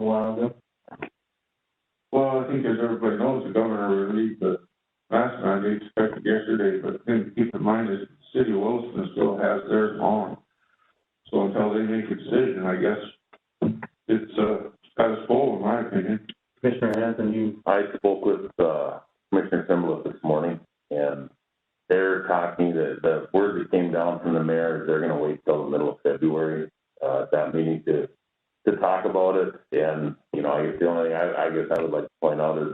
a while ago. Well, I think as everybody knows, the governor released the last night, they expected yesterday, but then keep in mind that the City of Williston still has theirs on. So until they make a decision, I guess it's, uh, status quo in my opinion. Commissioner Hanson, you, I spoke with, uh, Commissioner Simbleth this morning, and they're talking, the, the word that came down from the mayor is they're gonna wait till the middle of February, uh, at that meeting to, to talk about it, and, you know, I guess the only, I, I guess I would like to point out is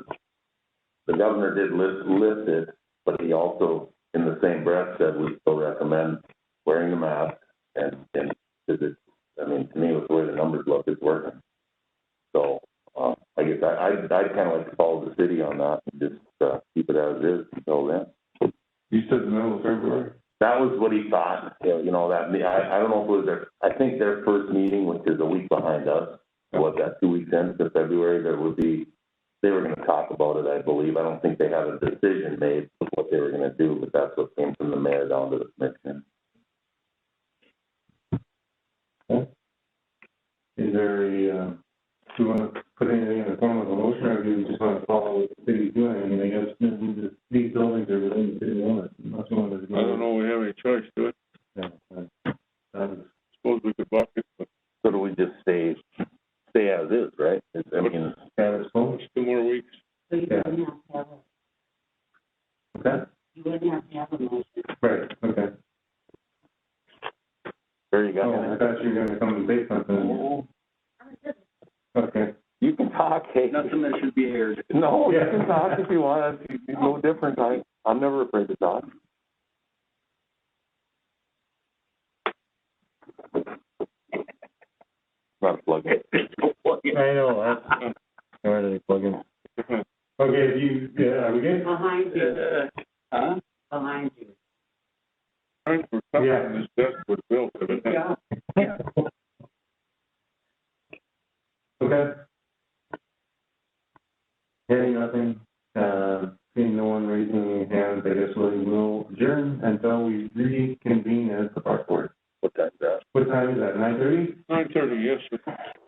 the governor did list, list it, but he also, in the same breath, said we still recommend wearing the mask, and, and, is it, I mean, to me, with the way the numbers look, it's working. So, uh, I guess I, I'd, I'd kind of like to follow the city on that and just, uh, keep it as is until then. You said the middle of February? That was what he thought, you know, you know, that, I, I don't know if it was their, I think their first meeting, which is a week behind us, was that two weeks into February, there would be, they were gonna talk about it, I believe. I don't think they had a decision made of what they were gonna do, but that's what came from the mayor down to the commission. is there a, uh, do you want to put anything in the form of a motion, or do you just want to follow what the city's doing? I mean, I guess this is just- these buildings are within the city limits, unless you want to. I don't know, we have any choice to it, know. Um, suppose we could block it, but So do we just stay, stay as is, right? It's- I mean, status quo, it's two more weeks. So you wouldn't have to have, a- okay, you wouldn't have to have a motion. right, okay. there you Oh, go. I thought you were gonna come and say something. Okay, You can talk, hey. Nothing that should be aired. No, you Yeah. can talk if you want. It's it's no different. I, I'm never afraid to talk. Not a plug in. I know, that's, where do they plug in? Okay, if you, yeah, are we good? Behind you, Huh? behind you. Aren't we Yeah. this desk was built, evidently. Okay. Hearing nothing, uh, seeing no one raising any hands, I guess we will adjourn until we reconvene as the park board. What time's that? What time is that, nine thirty? nine thirty, yes, sir.